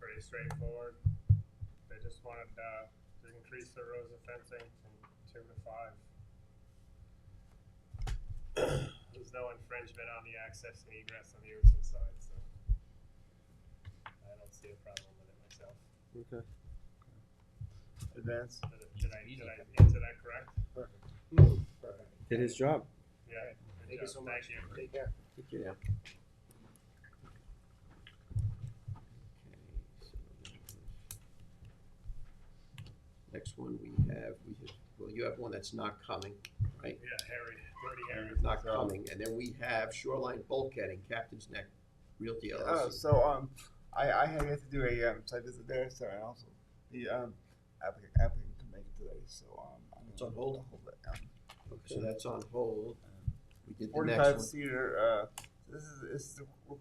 pretty straightforward. They just wanted, uh, to increase their rows of fencing from two to five. There's no infringement on the access and egress on the ocean side, so I don't see a problem with it myself. Okay. Advance. Did I, did I, did I answer that correct? Perfect. Did his job. Yeah. good Thank you job. so Thank much. you. Take care. Thank you. Okay, so that was- Next one we have, we have, well, you have one that's not coming, right? Yeah, Harry, Dirty Harry. It's Not coming, and then we have shoreline bulkheading, Captain's Neck Realty Oh, LLC. so um, I I had yet to do a um site visit there, so and also the um applicant applicant can make it today, so um. I'm It's gonna on hold? Hold it down. Okay, So that's on hold. We did the next Forty-five one. seater, uh, this is, this is, the rec-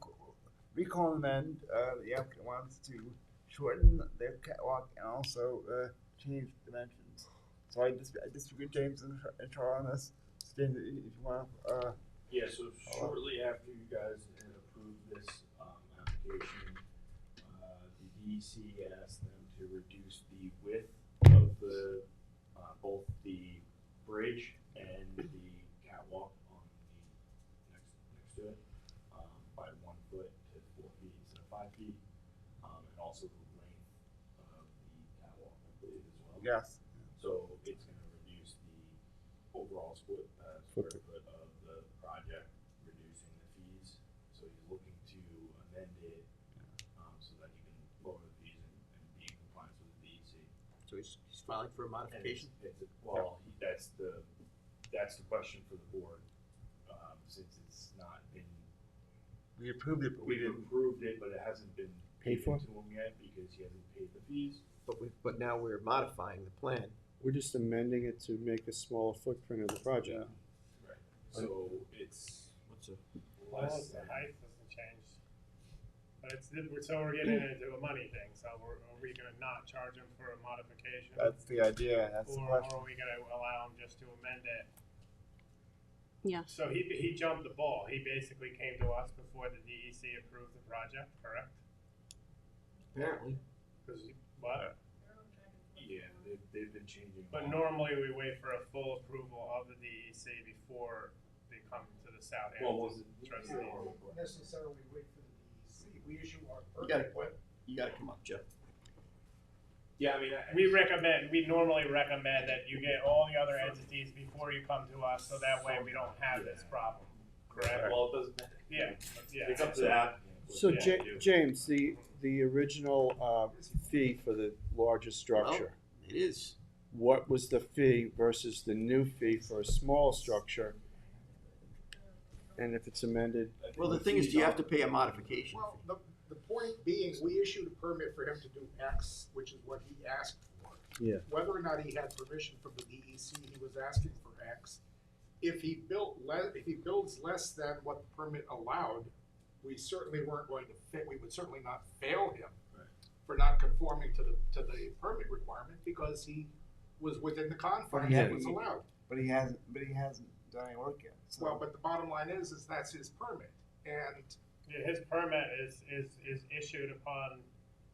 recall and amend, uh, the applicant wants to shorten their catwalk and also, uh, change dimensions. So I dis- I disagree with James and Char- and Charles on this, So James, if you want, uh, Yeah, so shortly after you guys had approved this, um, application, uh, the DEC asked them to reduce the width of the, uh, both the bridge and the catwalk on the next, next to it, um, by one foot to four feet instead of five feet, um, and also the length of the catwalk, I believe, as well. yes, So it's gonna reduce the overall split, uh, square foot of the project, reducing the fees. So he's looking to amend it, um, so that you can lower the fees and, and be in compliance with the DEC. So he's, he's filing for a And modification? It's, it's- well, he- that's the, that's the question for the board, um, since it's not been, we approved it, but we we've didn't, approved it, but it hasn't been Paid for? given To him yet, because he hasn't paid the fees. But we, but now we're modifying the plan. We're just amending it to make a smaller footprint of the project. Right. So it's What's a- Well, less the than. height doesn't change. But it's, so we're getting into a money thing, so we're, are we gonna not charge them for a modification? that's the idea, that's the Or question. are we gonna allow him just to amend it? Yeah. So he, he jumped the ball, he basically came to us before the DEC approved the project, correct? Apparently. Cause, what? Yeah, they've, they've been changing. But all- normally we wait for a full approval of the DEC before they come to the Well, Southampton was it? trustee. Necessarily wait for the DEC, we issue our You got a permit point. You gotta come up, Jeff. Yeah, I mean, I. We recommend, we normally recommend that you get all the other entities before you come to us, so that way we don't have this problem, correct? Well, it doesn't. Yeah, yeah. It's up to that. So Ja- James, the, the original, uh, fee for the larger structure, It is. what was the fee versus the new fee for a small structure? And if it's amended, Well, the thing is, do you have to pay a modification? Well, the, the point being, we issued a permit for him to do X, which is what he asked for. Yeah. Whether or not he had permission from the DEC, he was asking for X. If he built le, if he builds less than what the permit allowed, we certainly weren't going to fa, we would certainly not fail him Right. for not conforming to the, to the permit requirement because he was within the confines yeah. that was allowed. But he hasn't, but he hasn't done any work yet, so. Well, but the bottom line is, is that's his permit. And Yeah, His permit is, is, is issued upon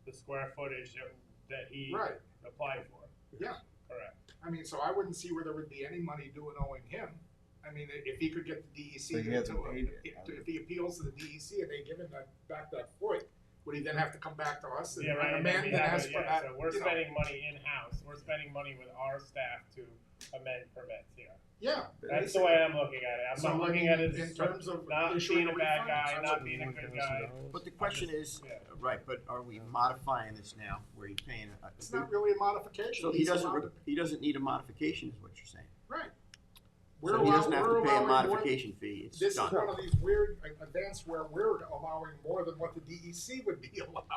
the square footage that- that he Right. applied for. Yeah. Correct. I mean, so I wouldn't see where there would be any money due and owing him. I mean, i- if he could get the DEC But he to, hasn't paid it, if- has he? if he appeals to the DEC and they give him that, back that foot, would he then have to come back to us and Yeah, right. and then amend we and have ask it, for yeah, that? So we're uh, you know? spending money in-house, we're spending money with our staff to amend permits here. Yeah. That's the way I'm looking at it, I'm So, not I looking mean, at it In as terms of not issuing being a bad refund, guy, that's not what- being a good guy. But the question is, Yeah. right, but are we modifying this now, where you're paying? a- a- It's not really a modification. So he He's doesn't, allowed re- to- he doesn't need a modification, is what you're saying? Right. We're So he doesn't allow- have we're to pay a allowing more- modification fee, it's This is one done. of these weird like, events where we're allowing more than what the DEC would be allowing.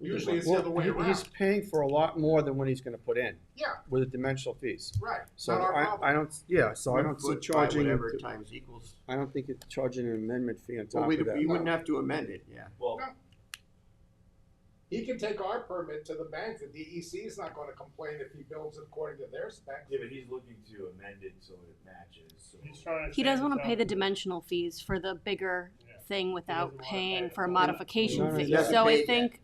Usually it's the other well, way he- he's around. paying for a lot more than what he's gonna put in Yeah, with the dimensional fees. right. So Not our I, problem. I don't, yeah, so I One don't see foot by charging, Whatever I times equals. don't think it's charging an amendment fee on Well, top we, of we that. wouldn't have to amend it, yeah. Well, He can take our permit to the bank, the DEC is not gonna complain if he builds it according to their specs. yeah, but he's looking to amend it so it matches, so. He's trying to He doesn't save want to pay the himself. dimensional fees for the bigger Yeah. thing doesn't without wanna pay paying it. for a No, modification no, fee. he hasn't So I paid yet. think